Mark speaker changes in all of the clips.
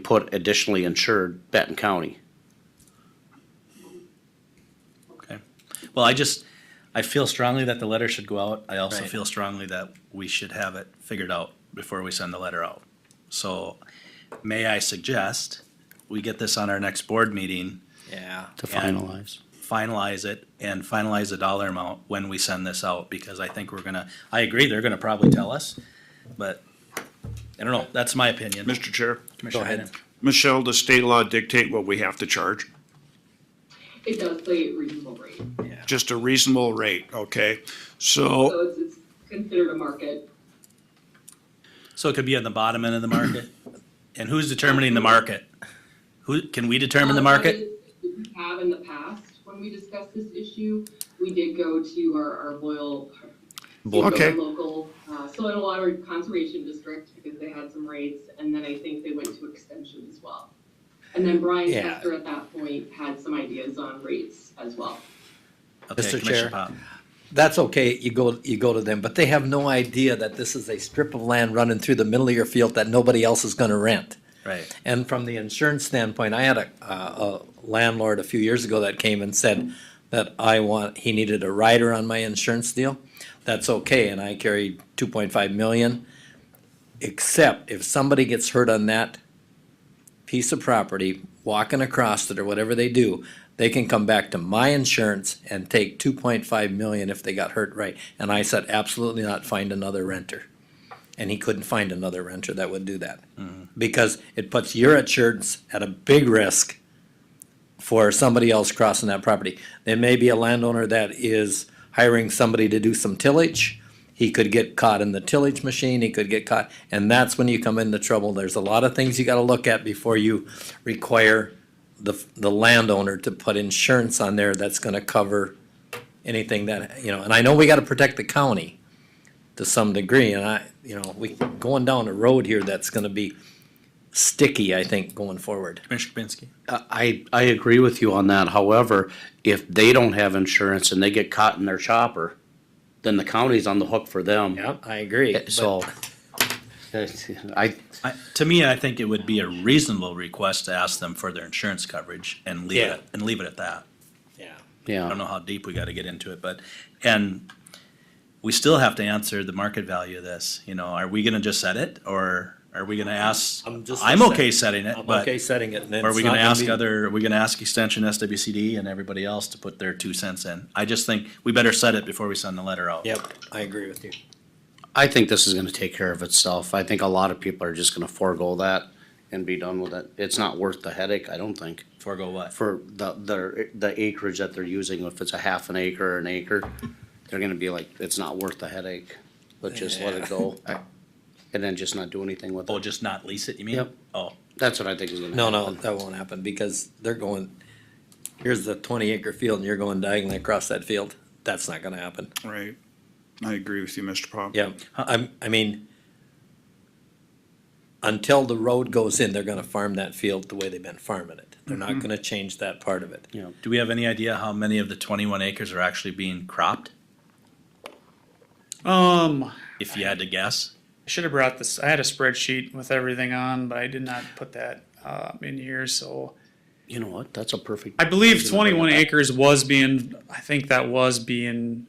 Speaker 1: put additionally insured Benton County.
Speaker 2: Okay. Well, I just, I feel strongly that the letter should go out. I also
Speaker 3: Right.
Speaker 2: feel strongly that we should have it figured out before we send the letter out. So may I suggest we get this on our next board meeting,
Speaker 3: Yeah.
Speaker 1: To
Speaker 2: And-
Speaker 1: finalize.
Speaker 2: finalize it and finalize the dollar amount when we send this out because I think we're gonna, I agree, they're gonna probably tell us, but I don't know. That's my opinion.
Speaker 4: Mr. Chair,
Speaker 2: Commissioner
Speaker 3: ahead.
Speaker 2: Hayden.
Speaker 4: Michelle, does state law dictate what we have to charge?
Speaker 5: It does play at reasonable rate,
Speaker 4: Just a reasonable rate, okay?
Speaker 5: so
Speaker 2: Oh.
Speaker 4: So,
Speaker 5: it's, it's considered a market.
Speaker 2: So it could be on the bottom end of the market. And who's determining the market? Who, can we determine the
Speaker 5: Uh,
Speaker 2: market?
Speaker 5: that is- We have in the past, when we discussed this issue, we did go to our, our loyal, to our
Speaker 4: Okay.
Speaker 5: local, uh, soil and water conservation district, because they had some rates, and then I think they went to extension as well. And then Brian
Speaker 3: Yeah.
Speaker 5: Kester at that point had some ideas on rates as well.
Speaker 2: Okay,
Speaker 3: Mr.
Speaker 2: Commissioner
Speaker 3: Chair.
Speaker 2: Pop.
Speaker 3: That's okay, you go, you go to them, but they have no idea that this is a strip of land running through the middle of your field that nobody else is gonna rent.
Speaker 2: Right.
Speaker 3: And from the insurance standpoint, I had a, uh, a landlord a few years ago that came and said that I want, he needed a rider on my insurance deal. That's okay, and I carried two point five million. Except if somebody gets hurt on that piece of property, walking across it or whatever they do, they can come back to my insurance and take two point five million if they got hurt right. And I said, absolutely not, find another renter. And he couldn't find another renter that would do that because it puts your insurance at a big risk for somebody else crossing that property. There may be a landowner that is hiring somebody to do some tillage. He could get caught in the tillage machine, he could get caught, and that's when you come into trouble. There's a lot of things you gotta look at before you require the, the landowner to put insurance on there that's gonna cover anything that, you know, and I know we gotta protect the county to some degree, and I, you know, we going down a road here that's gonna be sticky, I think, going forward.
Speaker 2: Commissioner Kapinski.
Speaker 1: I, I agree with you on that. However, if they don't have insurance and they get caught in their chopper, then the county's on the hook for them.
Speaker 3: I agree.
Speaker 1: So, I,
Speaker 2: I, to me, I think it would be a reasonable request to ask them for their insurance coverage and leave
Speaker 3: Yeah.
Speaker 2: it and leave it at that.
Speaker 3: Yeah.
Speaker 2: I don't
Speaker 1: yeah,
Speaker 2: know how deep we got to get into it, but and we still have to answer the market value of this. You know, are we going to just set it or are we going to ask?
Speaker 3: I'm just-
Speaker 2: I'm okay setting it,
Speaker 3: I'm
Speaker 2: but
Speaker 3: okay setting it. and
Speaker 2: are
Speaker 3: it's
Speaker 2: we
Speaker 3: not
Speaker 2: going to ask
Speaker 3: be-
Speaker 2: other? Are we going to ask Extension, SWCD, and everybody else to put their two cents in? I just think we better set it before we send the letter out.
Speaker 3: Yep, I agree with you.
Speaker 1: I think this is gonna take care of itself. I think a lot of people are just gonna forego that and be done with it. It's not worth the headache, I don't think,
Speaker 2: Forego what?
Speaker 1: for the, the, the acreage that they're using, if it's a half an acre or an acre, they're gonna be like, it's not worth the headache. Let's just let it go. And then just not do anything with
Speaker 2: Oh,
Speaker 1: it.
Speaker 2: just not lease it? You mean?
Speaker 1: Yep.
Speaker 2: Oh,
Speaker 1: That's what I think is gonna
Speaker 3: No,
Speaker 1: happen.
Speaker 3: no, that won't happen because they're going, here's the twenty acre field and you're going diagonally across that field. That's not gonna happen.
Speaker 4: right, I agree with you, Mr. Pop.
Speaker 3: Yeah, I'm, I mean, until the road goes in, they're gonna farm that field the way they've been farming it. They're
Speaker 2: Mm-hmm.
Speaker 3: not gonna change that part of it.
Speaker 2: do we have any idea how many of the 21 acres are actually being cropped?
Speaker 6: Um,
Speaker 2: If you had to guess.
Speaker 6: I should have brought this. I had a spreadsheet with everything on, but I did not put that uh, in here. So
Speaker 1: You know what? That's a perfect.
Speaker 6: I believe
Speaker 1: reason to bring it
Speaker 6: 21
Speaker 1: back.
Speaker 6: acres was being. I think that was being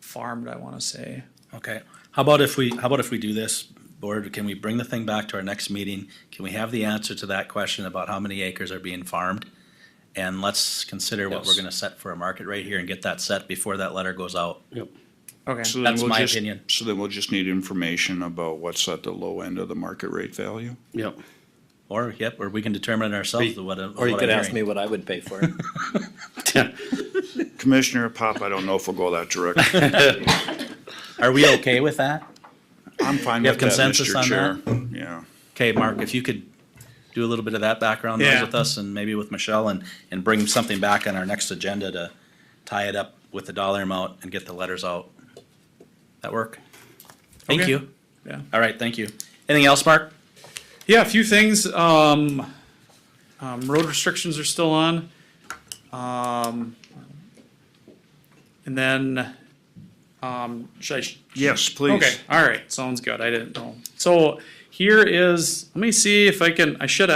Speaker 6: farmed. I want to say.
Speaker 2: Okay, how about if we, how about if we do this, board, can we bring the thing back to our next meeting? Can we have the answer to that question about how many acres are being farmed? And let's consider what we're
Speaker 1: Yes.
Speaker 2: gonna set for a market right here and get that set before that letter goes out.
Speaker 6: Okay.
Speaker 4: So then
Speaker 2: That's
Speaker 4: we'll
Speaker 2: my
Speaker 4: just-
Speaker 2: opinion.
Speaker 4: So then we'll just need information about what's at the low end of the market rate value?
Speaker 1: Yep.
Speaker 2: Or, yep, or we can determine it ourselves what. I'm-
Speaker 3: Or you
Speaker 2: what
Speaker 3: could
Speaker 2: I'm
Speaker 3: ask me
Speaker 2: hearing.
Speaker 3: what I would pay for it.
Speaker 4: Commissioner Pop, I don't know if we'll go that direction.
Speaker 2: Are we okay with that?
Speaker 4: I'm fine
Speaker 2: You have
Speaker 4: with that,
Speaker 2: consensus on
Speaker 4: Mr. Chair. Yeah,
Speaker 2: Okay, Mark, if you could do a little bit of that background noise
Speaker 6: Yeah.
Speaker 2: with us and maybe with Michelle and, and bring something back on our next agenda to tie it up with the dollar amount and get the letters out. That work? Thank
Speaker 6: Okay.
Speaker 2: you.
Speaker 6: Yeah.
Speaker 2: All right, thank you. Anything else, Mark?
Speaker 6: Yeah, a few things. Um, um, road restrictions are still on. Um, and then, um, should I,
Speaker 4: yes, please.
Speaker 6: Okay, all right, sounds good. I didn't know. So Here is, let me see if I can, I should have